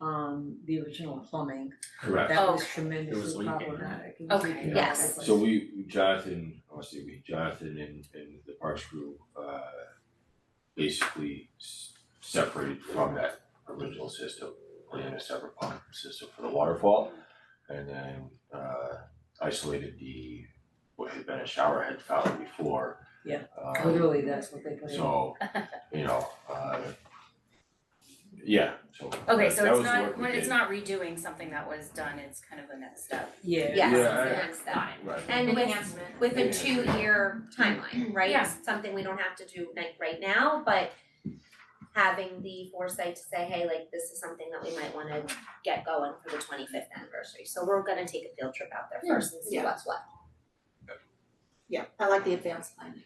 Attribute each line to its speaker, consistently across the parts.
Speaker 1: um the original plumbing,
Speaker 2: Correct.
Speaker 1: that was
Speaker 2: It
Speaker 3: Oh, Okay.
Speaker 2: was
Speaker 1: tremendously
Speaker 2: leaking, yeah.
Speaker 1: problematic. It
Speaker 3: Okay,
Speaker 1: leaking.
Speaker 3: yes.
Speaker 2: So we, Jonathan, I say we, Jonathan and and the parks crew, uh, basically s- separated from that original system, put in a separate pump system for the waterfall. And then, uh, isolated the, what had been a shower head fountain before.
Speaker 1: Yeah.
Speaker 2: Um,
Speaker 1: Literally, that's what they put in.
Speaker 2: So, you know, uh, yeah, so.
Speaker 3: Okay,
Speaker 2: that-
Speaker 3: so
Speaker 2: that
Speaker 3: it's
Speaker 2: was the work
Speaker 3: not,
Speaker 2: we
Speaker 3: when it's
Speaker 2: did.
Speaker 3: not redoing something that was done, it's kind of the next step.
Speaker 1: Yeah.
Speaker 4: Yes,
Speaker 2: Yeah,
Speaker 4: it's
Speaker 2: I-
Speaker 4: the next step.
Speaker 2: Right.
Speaker 4: And with with a
Speaker 2: Yeah.
Speaker 4: two year timeline, right?
Speaker 3: Yeah.
Speaker 4: Something we don't have to do like right now, but having the foresight to say, hey, like this is something that we might wanna get going for the twenty fifth anniversary. So we're gonna take a field trip out there
Speaker 5: Yeah.
Speaker 4: first and see
Speaker 5: Yeah.
Speaker 4: what's what.
Speaker 5: Yeah, I like the advanced planning.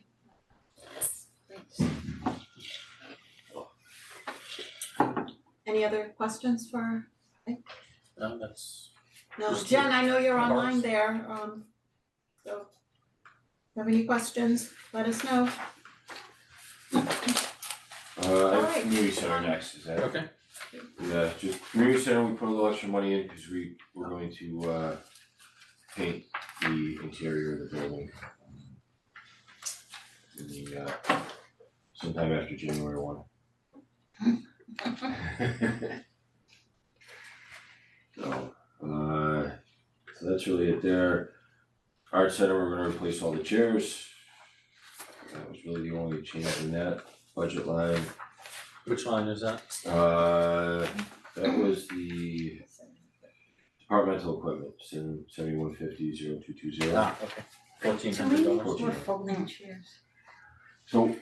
Speaker 5: Any other questions for,
Speaker 6: No, that's.
Speaker 5: no,
Speaker 6: Just
Speaker 5: Jen, I know you're
Speaker 6: the
Speaker 5: online
Speaker 6: bars.
Speaker 5: there, um, so. if you Have any questions, let us know.
Speaker 2: Uh, I have
Speaker 5: Alright,
Speaker 2: community center
Speaker 5: um,
Speaker 2: next, is that?
Speaker 6: Okay.
Speaker 2: Yeah, just community center, we put a little extra money in because we we're going to uh paint the interior of the building. In the uh sometime after January one. So uh so that's really it there. Art center, we're gonna replace all the chairs. That was really the only change in that budget line.
Speaker 6: Which line is that?
Speaker 2: Uh, that was the departmental equipment, seven, seventy-one fifty, zero two two zero.
Speaker 6: Ah, okay. Fourteen hundred dollars.
Speaker 2: Fourteen.
Speaker 1: folding chairs.
Speaker 2: So,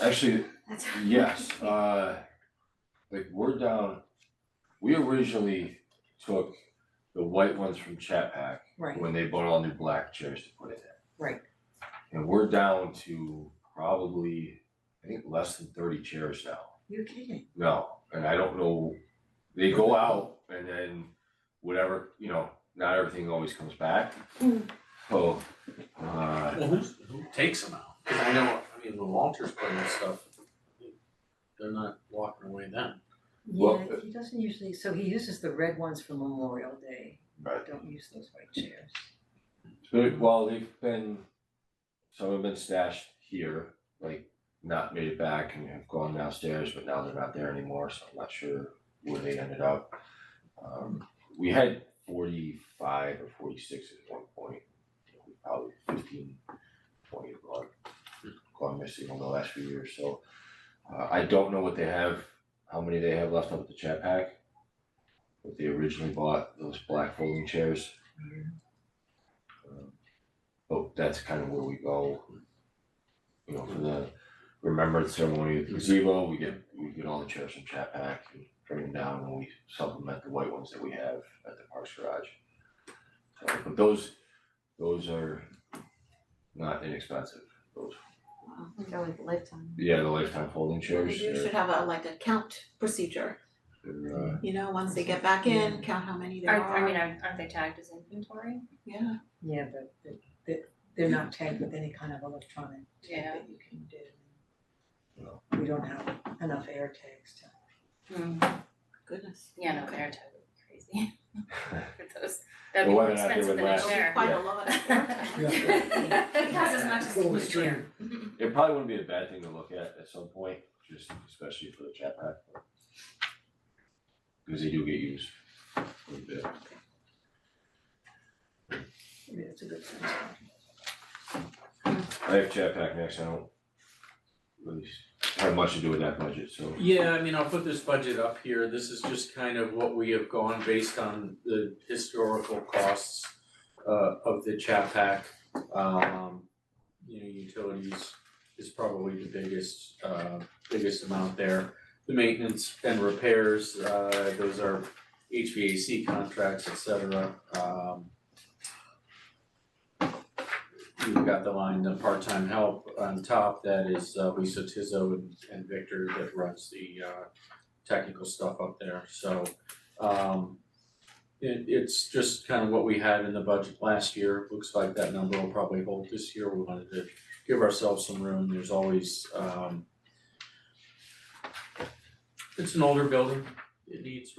Speaker 2: actually,
Speaker 1: That's.
Speaker 2: yes, uh, like we're down, we originally took the white ones from Chat Pack
Speaker 1: Right,
Speaker 2: when they bought all new black chairs to put in there.
Speaker 1: Right.
Speaker 2: And we're down to probably, I think, less than thirty chairs now.
Speaker 1: you're kidding.
Speaker 2: No, and I don't know, they go out and then whatever, you know, not everything always comes back.
Speaker 4: Mm.
Speaker 2: So, uh,
Speaker 6: Well, who's, who takes them out? 'Cause I know, I mean, when Walter's putting this stuff, they're not walking away then.
Speaker 1: Yeah,
Speaker 2: Well,
Speaker 1: he doesn't usually, so he uses the red ones for Memorial Day,
Speaker 2: but,
Speaker 1: don't use those white chairs.
Speaker 2: but, well, they've been, some have been stashed here, like not made it back and have gone downstairs, but now they're not there anymore, so I'm not sure where they ended up. Um, we had forty-five or forty-six at one point, you know, we probably fifteen, twenty have gone, gone missing over the last few years, so. Uh, I don't know what they have, how many they have left up at the chat pack. But they originally bought those black folding chairs. Um, But that's kind of where we go. You know, for the remembrance ceremony at the gazebo, we get, we get all the chairs from chat pack and bring them down and we supplement the white ones that we have at the Parks Garage. So, but those, those are not inexpensive, those,
Speaker 5: Go with lifetime.
Speaker 2: yeah, the lifetime folding
Speaker 5: You
Speaker 2: chairs, they're-
Speaker 5: should have a, like a count procedure,
Speaker 2: they're, uh,
Speaker 5: you know, once they get back in, count how many there
Speaker 3: Are,
Speaker 5: are.
Speaker 3: I mean, aren't aren't they tagged as inventory?
Speaker 5: Yeah.
Speaker 1: Yeah, but they- they they're not tagged with any kind of electronic tag
Speaker 3: Yeah.
Speaker 1: that you can do.
Speaker 2: No.
Speaker 1: We don't have enough air tags to.
Speaker 5: Goodness.
Speaker 3: Yeah, no,
Speaker 5: Okay.
Speaker 3: they're totally
Speaker 2: uh,
Speaker 3: crazy. For those, that'd
Speaker 2: Well, whether
Speaker 3: be more
Speaker 2: or not they
Speaker 3: expensive
Speaker 2: would
Speaker 3: than a
Speaker 2: last-
Speaker 3: chair.
Speaker 5: Quite a lot.
Speaker 3: It costs as much as a new chair.
Speaker 2: It probably wouldn't be a bad thing to look at at some point, just especially for the chat pack. Cause they do get used a little bit.
Speaker 1: Yeah, it's a good sense.
Speaker 2: I have chat pack next, I don't really have much to do with that budget, so.
Speaker 6: Yeah, I mean, I'll put this budget up here, this is just kind of what we have gone based on the historical costs uh of the Chapac. Um, you know, utilities is probably the biggest uh biggest amount there. The maintenance and repairs, uh those are HVAC contracts, et cetera, um. We've got the line, the part-time help on top, that is uh, Lisa Tizzo and and Victor that runs the uh technical stuff up there, so um it it's just kind of what we had in the budget last year, looks like that number will probably hold this year, we wanted to give ourselves some room, there's always um it's an older building, it needs